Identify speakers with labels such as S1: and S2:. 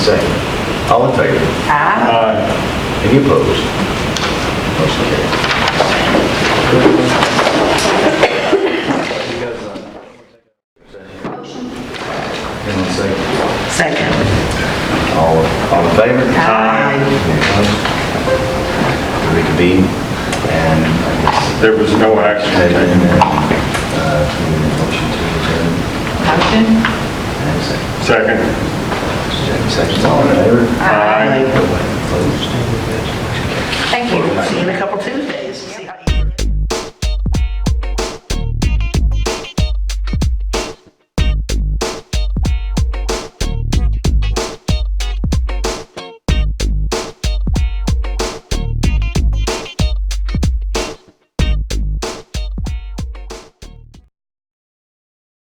S1: Second. All in favor?
S2: Aye.
S1: Any opposed? Motion carried. Anyone second?
S2: Second.
S1: All, all in favor?
S2: Aye.
S1: Any opposed? Reconvene and I guess
S3: There was no action
S1: Table
S3: taken.
S1: in there, uh, to the motion to adjourn.
S2: Motion?
S1: And second.
S3: Second.
S1: Second, all in favor?
S3: Aye.
S1: Opposed?
S2: Thank you. See you in a couple